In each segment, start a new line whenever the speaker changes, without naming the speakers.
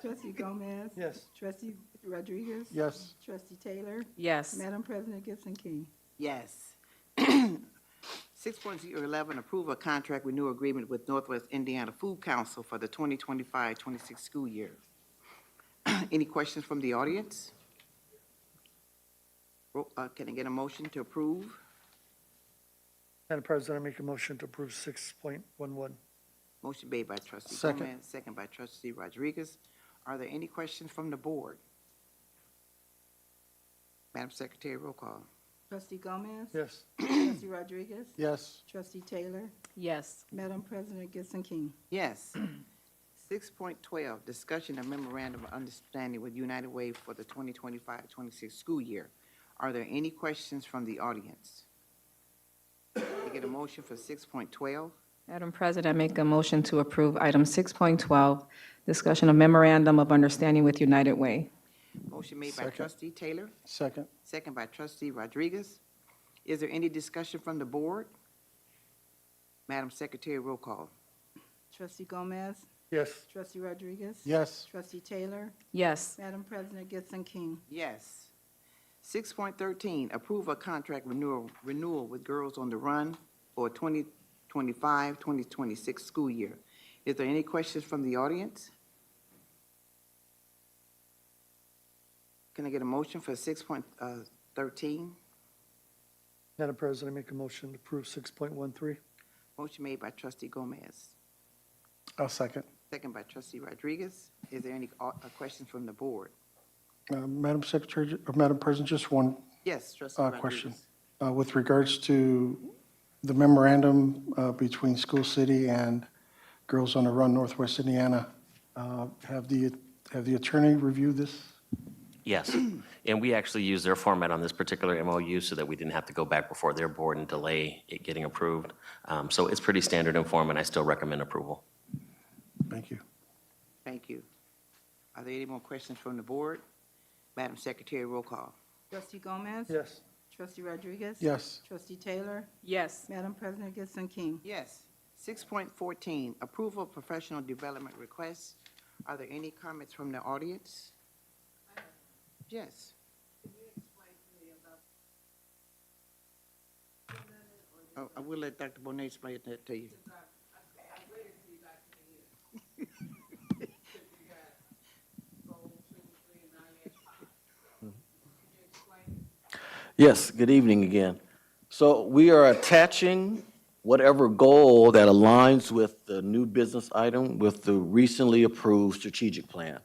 Trustee Gomez?
Yes.
Trustee Rodriguez?
Yes.
Trustee Taylor?
Yes.
Madam President Gibson King?
Yes. Six point zero eleven, approve a contract renewal agreement with Northwest Indiana Food Council for the 2025-26 school year. Any questions from the audience? Ro- uh, can I get a motion to approve?
Madam President, I make a motion to approve six point one one.
Motion made by trustee
Second.
Gomez, second by trustee Rodriguez. Are there any questions from the board? Madam Secretary, roll call.
Trustee Gomez?
Yes.
Trustee Rodriguez?
Yes.
Trustee Taylor?
Yes.
Madam President Gibson King?
Yes. Six point twelve, discussion of memorandum of understanding with United Way for the 2025-26 school year. Are there any questions from the audience? Can I get a motion for six point twelve?
Madam President, I make a motion to approve item 6.12, discussion of memorandum of understanding with United Way.
Motion made by
Second.
trustee Taylor,
Second.
second by trustee Rodriguez. Is there any discussion from the board? Madam Secretary, roll call.
Trustee Gomez?
Yes.
Trustee Rodriguez?
Yes.
Trustee Taylor?
Yes.
Madam President Gibson King?
Yes. Six point thirteen, approve a contract renewal, renewal with Girls on the Run for 2025-2026 school year. Is there any questions from the audience? Can I get a motion for six point uh, thirteen?
Madam President, I make a motion to approve six point one three.
Motion made by trustee Gomez,
I'll second.
second by trustee Rodriguez. Is there any, uh, questions from the board?
Uh, Madam Secretary, or Madam President, just one
Yes, trustee
uh,
Rodriguez.
question. Uh, With regards to the memorandum uh, between School City and Girls on the Run Northwest Indiana, uh, have the, have the attorney reviewed this?
Yes, and we actually used their format on this particular MOU so that we didn't have to go back before their board and delay it getting approved. Um, So it's pretty standard in form, and I still recommend approval.
Thank you.
Thank you. Are there any more questions from the board? Madam Secretary, roll call.
Trustee Gomez?
Yes.
Trustee Rodriguez?
Yes.
Trustee Taylor?
Yes.
Madam President Gibson King?
Yes. Six point fourteen, approval of professional development requests. Are there any comments from the audience? Yes. Oh, I will let Dr. Bonet explain that to you.
Yes, good evening again. So we are attaching whatever goal that aligns with the new business item with the recently approved strategic plan.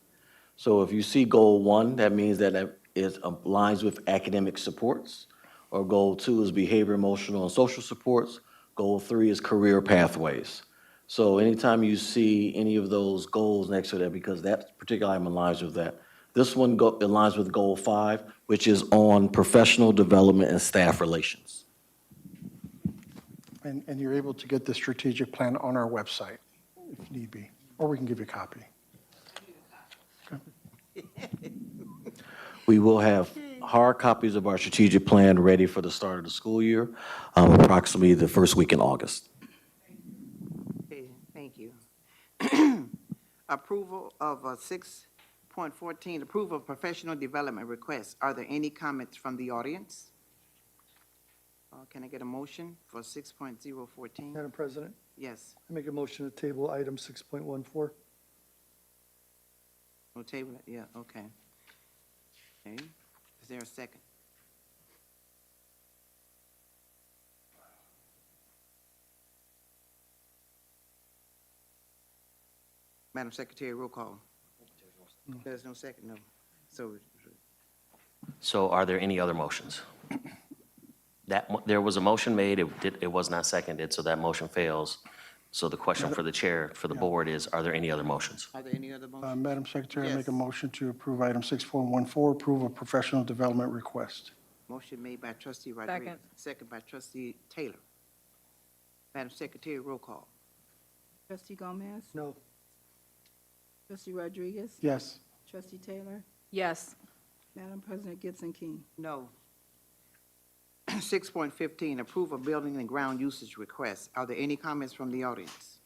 So if you see goal one, that means that it aligns with academic supports. Or goal two is behavior, emotional, and social supports. Goal three is career pathways. So anytime you see any of those goals next to that, because that particular item aligns with that. This one go, aligns with goal five, which is on professional development and staff relations.
And, and you're able to get the strategic plan on our website if need be, or we can give you a copy.
We will have hard copies of our strategic plan ready for the start of the school year, um, approximately the first week in August.
Okay, thank you. Approval of six point fourteen, approval of professional development requests. Are there any comments from the audience? Uh, Can I get a motion for six point zero fourteen?
Madam President,
Yes,
I make a motion to table item six point one four.
we'll table it, yeah, okay. Okay, is there a second? Madam Secretary, roll call. There's no second, no. So
So are there any other motions? That, mo- there was a motion made, it did, it was not seconded, so that motion fails. So the question for the chair, for the board is, are there any other motions?
Are there any other
Uh,
motions?
Madam Secretary, I make a
Yes.
motion to approve item 6.14, approval of professional development request.
Motion made by trustee Rodriguez, second by trustee Taylor. Madam Secretary, roll call.
Trustee Gomez?
No.
Trustee Rodriguez?
Yes.
Trustee Taylor?
Yes.
Madam President Gibson King?
No. Six point fifteen, approve of building and ground usage requests. Are there any comments from the audience?